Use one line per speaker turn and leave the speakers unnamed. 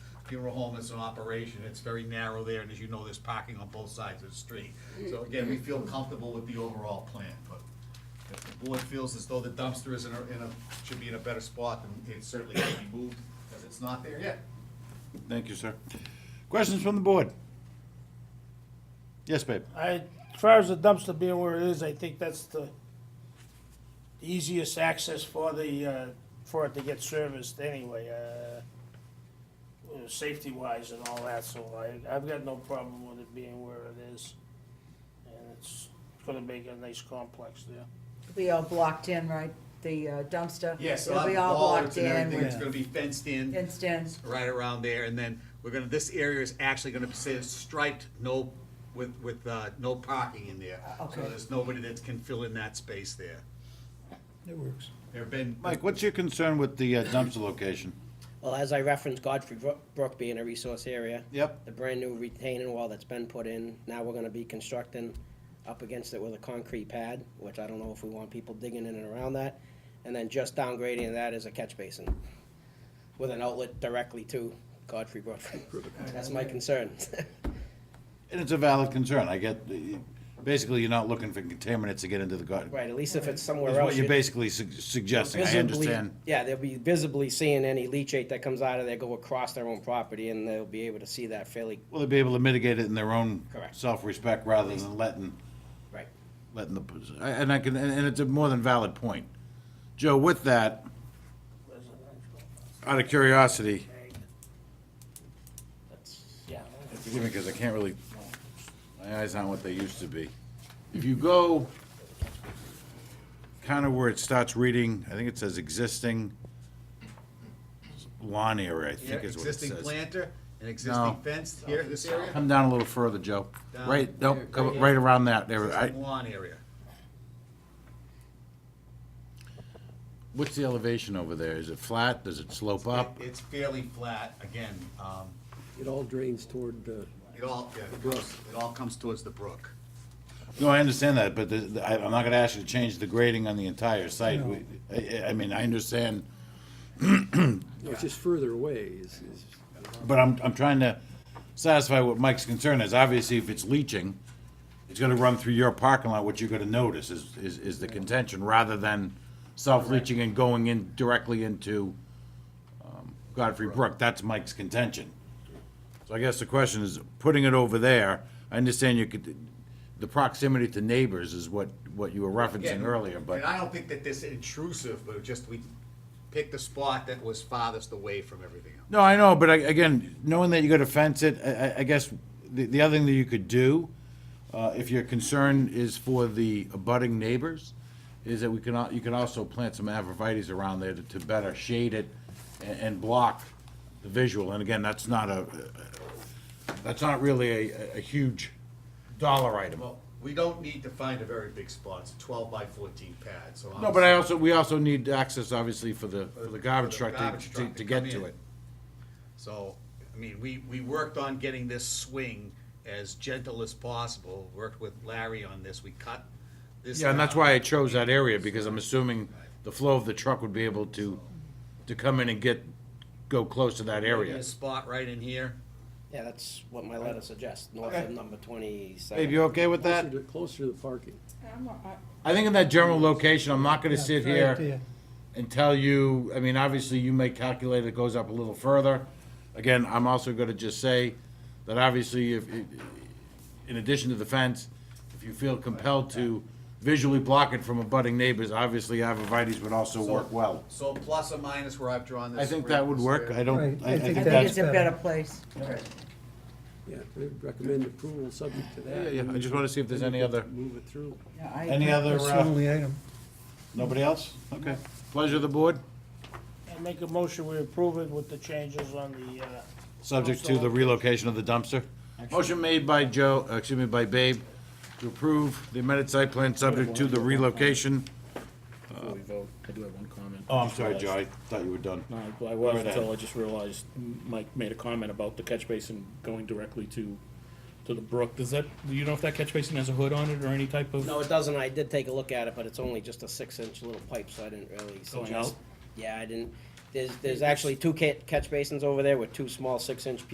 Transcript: funeral home is an operation, it's very narrow there, and as you know, there's parking on both sides of the street. So again, we feel comfortable with the overall plan, but if the board feels as though the dumpster is in a, in a, should be in a better spot, then it certainly can be moved, because it's not there yet.
Thank you, sir. Questions from the board? Yes, babe.
I, as far as the dumpster being where it is, I think that's the easiest access for the, uh, for it to get serviced anyway, uh, uh, safety-wise and all that, so I, I've got no problem with it being where it is. And it's gonna make a nice complex there.
Be all blocked in, right? The uh, dumpster?
Yeah, so
It'll
I'll
be
have
all
bollards and
blocked
everything,
in,
it's gonna be fenced in.
fenced in.
right around there, and then we're gonna, this area is actually gonna say striped, no, with, with, uh, no parking in there. So
Uh, Okay.
there's nobody that can fill in that space there.
It works.
There have been,
Mike, what's your concern with the uh, dumpster location?
Well, as I referenced Godfrey Bro- Brook being a resource area.
Yep.
The brand-new retaining wall that's been put in, now we're gonna be constructing up against it with a concrete pad, which I don't know if we want people digging in and around that. And then just downgrading that is a catch basin with an outlet directly to Godfrey Brook. That's my concern.
And it's a valid concern. I get, the- basically, you're not looking for contaminants to get into the garden.
Right, at least if it's somewhere
Is
else.
what you're
you'd-
basically su- suggesting. I
visibly-
understand.
Yeah, they'll be visibly seeing any leachate that comes out of there go across their own property, and they'll be able to see that fairly,
Will they be able to mitigate it in their own
Correct.
self-respect rather than letting,
right.
letting the, and I can, and and it's a more than valid point. Joe, with that, out of curiosity,
That's, yeah.
forgive me because I can't really, my eyes aren't what they used to be. If you go kind of where it starts reading, I think it says existing lawn area, I
here,
think is what it
existing
says.
planter, an
No.
existing fence here, this area,
Come down a little further, Joe.
Down
Right, no,
here,
come
right here.
right around that. There, I,
existing lawn area.
what's the elevation over there? Is it flat? Does it slope up?
It- It's fairly flat, again, um,
It all drains toward, uh,
it all, yeah, it goes, it all comes towards the brook.
No, I understand that, but the- the- I- I'm not gonna ask you to change the grading on the entire site.
No.
We- I, I- I mean, I understand,
no, it's just further away is, is,
but I'm, I'm trying to satisfy what Mike's concern is. Obviously, if it's leaching, it's gonna run through your parking lot, what you're gonna notice is, is, is the contention, rather than self-leaching and going in directly into um, Godfrey Brook. That's Mike's contention. So I guess the question is, putting it over there, I understand you could, the proximity to neighbors is what, what you were referencing
Yeah,
earlier, but.
And I don't think that this intrusive, but just we picked the spot that was farthest away from everything else.
No, I know, but I- again, knowing that you got to fence it, I, I- I guess the, the other thing that you could do, uh, if your concern is for the abutting neighbors, is that we can, al- you can also plant some arborvitae's around there to, to better shade it and, and block the visual. And again, that's not a, that's not really a, a huge dollar item.
Well, we don't need to find a very big spot, it's a twelve by fourteen pad, so.
No, but I also, we also need access, obviously, for the, for the garbage
For the
truck
garbage
to, to,
truck to
to get
come
to
in.
it.
So, I mean, we, we worked on getting this swing as gentle as possible, worked with Larry on this, we cut this. uh,
Yeah, and that's
down.
why I chose that area, because I'm assuming the flow of the truck would be able to, to come in and get, go close to that area.
This spot right in here,
Yeah, that's what my letter suggests, north of number twenty-seven.
Babe, you okay with
closer
that?
to, closer to the parking.
I think in that general location, I'm not gonna sit
try it
here
there.
and tell you, I mean, obviously, you may calculate it goes up a little further. Again, I'm also gonna just say that obviously, if, in addition to the fence, if you feel compelled to visually block it from abutting neighbors, obviously, arborvitae's would also work well.
so plus or minus where I've drawn this.
I think that would work, I don't,
Right,
I I think
I
that's
think it's a better place.
Yeah, we recommend approval subject to
Yeah,
that.
yeah, I just wanna see if there's any other,
Move it through.
Yeah, I
any
agree.
other,
That's the
uh,
only item.
nobody else? Okay. Pleasure of the board,
I make a motion, we approve it with the changes on the, uh,
subject to the relocation of the dumpster. Motion made by Joe, uh, excuse me, by Babe, to approve the amended site plan subject to the relocation.
Before we vote, I do have one comment.
Oh, I'm sorry, Joe, I thought you were done.
No, I-
Go
I was
right ahead.
until I just realized Mike made a comment about the catch basin going directly to, to the brook. Does that, do you know if that catch basin has a hood on it or any type of?
No, it doesn't. I did take a look at it, but it's only just a six-inch little pipe, so I didn't really suggest.
out?
Yeah, I didn't. There's, there's actually two ca- catch basins over there with two small six-inch